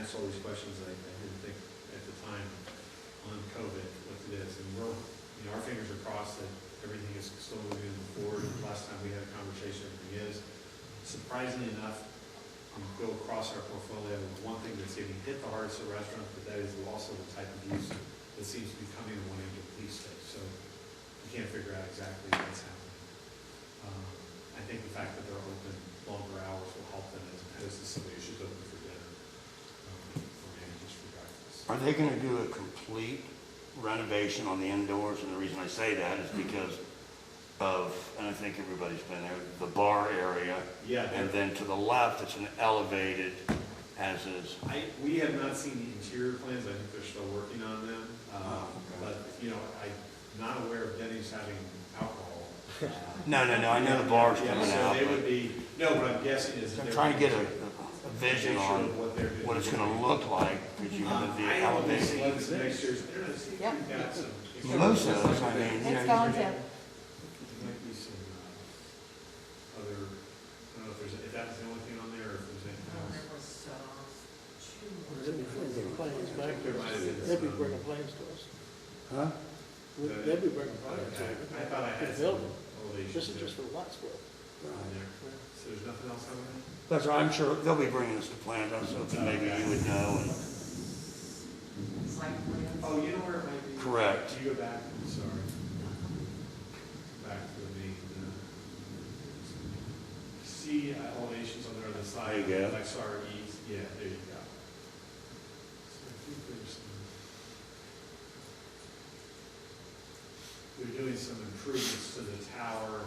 asked all these questions that I I didn't think at the time on COVID, what it is, and we're, you know, our fingers are crossed that everything is still moving forward. Last time we had a conversation, everything is. Surprisingly enough, we go across our portfolio, one thing that's getting hit the hardest are restaurants, but that is also the type of use that seems to be coming in one end of the police state, so we can't figure out exactly what's happening. Um, I think the fact that they're open longer hours will help them as opposed to somebody who's just open for dinner, um, or maybe just for breakfast. Are they gonna do a complete renovation on the indoors? And the reason I say that Mm-hmm. is because of, and I think everybody's been there, the bar area. Yeah, And they're- then to the left, it's an elevated, as is, I, we have not seen the interior plans, I think they're still working on them, um, Oh, but, you know, I'm not aware of Denny's having alcohol. uh, no, no, no, I know the bar's Yeah, coming out, So they would but be, no, what I'm guessing is. that I'm they're- trying to get a, a vision Picture on of what they're doing. what it's gonna look like, because you Um, have the I only see elevated. the pictures, there is, you've Yeah. got some. Most of those, I mean, you know. It's you- gone to, There might be some, uh, other, I don't know if there's, if that's the only thing on there, or if there's anything else. They'd be bringing complaints I back think there to might us. have been They'd be some- uh, bringing complaints to us. Huh? We'd- They'd be bringing complaints. Okay, I thought I had It's some building. This elevation is there. just for Wattsville. on there. So there's nothing else on there? That's right, I'm sure they'll be bringing us the plans, I was hoping maybe you would know, and Oh, you know where it might be? Correct. Do you go back, I'm sorry. Back to the main, uh, see uh, elevations on the other side. There you go. Like sorry, east, yeah, there you go. So I think there's some. They're doing some improvements to the tower,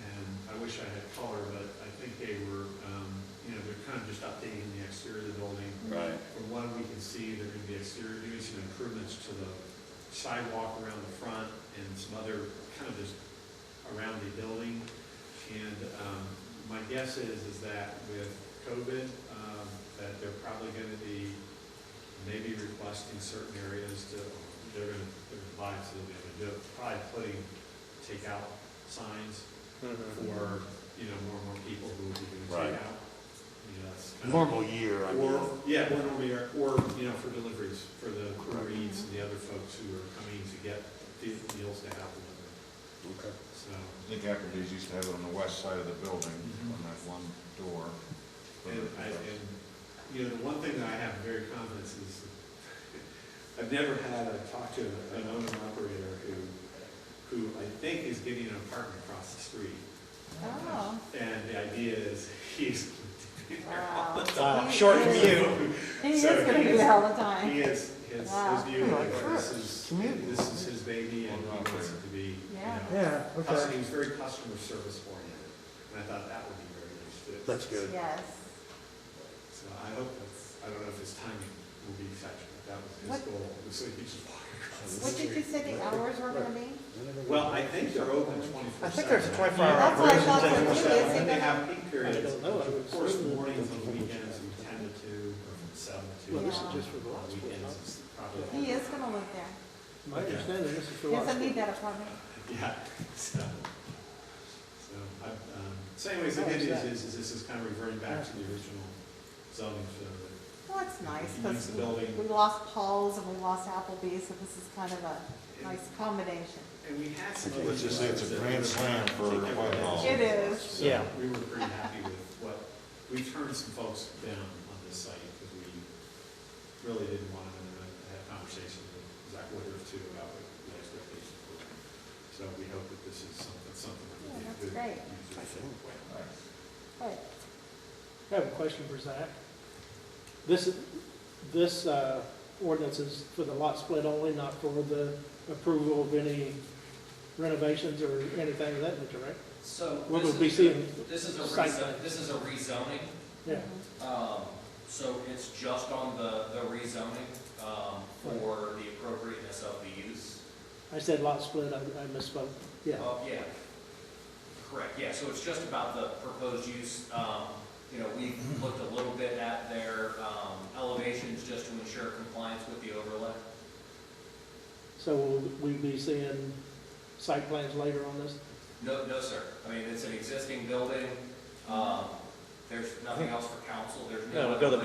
and I wish I had color, but I think they were, um, you know, they're kind of just updating the exterior of the building. Right. From what we can see, they're gonna be exterior, doing some improvements to the sidewalk around the front and some other kind of just around the building. And, um, my guess is, is that with COVID, um, that they're probably gonna be maybe requesting certain areas to, they're gonna, they're gonna buy, it, so they'll be able to do it, probably putting takeout signs for, you know, more and more people who will be doing Right. takeout. You know, that's kind of- normal year, I mean. or, yeah, or normally, are- or, you know, for deliveries, for the Reeds and the other folks who are coming to get the meals to have delivered, Okay. so. I think Applebee's used to have it on the west side of the building, on that one door. And I, and, you know, the one thing that I have very confidence is, I've never had, i talked to an owner operator who, who I think is getting an apartment across the street. oh, And the idea is, he's. wow. Uh, He short is- He is So gonna he do is- it all the time. He is, his, his Wow. view, Yeah, like, sure. this is, Community. this is his baby and he wants it to be, you Yeah. know. Yeah, cus- He was very customer service oriented, and I thought that would be very nice too. That's good. Yes. So I hope that's, I don't know if his timing will be such, but that was his What- goal, so he could just walk across the What did you street. say the hours were gonna be? Well, I think they're open twenty-four seven. I think there's a 24 hour That's what I thought operation. so too, isn't And they it? have peak periods, I don't know, I which would of course, assume that- mornings and weekends from ten to two, or from seven to. Well, this is nine. just for the On last one, Weekends, huh? it's probably. He is gonna live there. My understanding, this is for He doesn't Wattsville. need that apartment. Yeah, so, so, I, um, so anyways, the Oh, good is news that- is, is this is kind of reverting back to the original zoning, so that Well, that's nice, You use the because building. we lost Paul's and we lost Applebee's, so this is kind of a nice combination. And we had some. Let's just say it's a grand slam for Whitehall. It is. So Yeah. We were pretty happy with what, we turned some folks down on this site because we really didn't want them to have conversations with Zach Woodruff too about what the expectations were. So we hope that this is something, something that will be Yeah, a that's good great. user way. Right. I have a question for Zach. This, this uh, ordinance is for the lot split only, not for the approval of any renovations or anything of that nature, right? So What this would we is- see? This is a Site rezo, plan. this is a rezoning, Yeah. um, so it's just on the, the rezoning, um, for the appropriateness of the use. I said lot split, I I misspoke. Yeah. Oh, yeah. Correct, yeah, so it's just about the proposed use, um, you know, we looked a little bit at their, um, elevations just to ensure compliance with the overlay. So will we be seeing site plans later on this? No, no, sir, I mean, it's an existing building, um, there's nothing else for council, there's no. No, we'll go to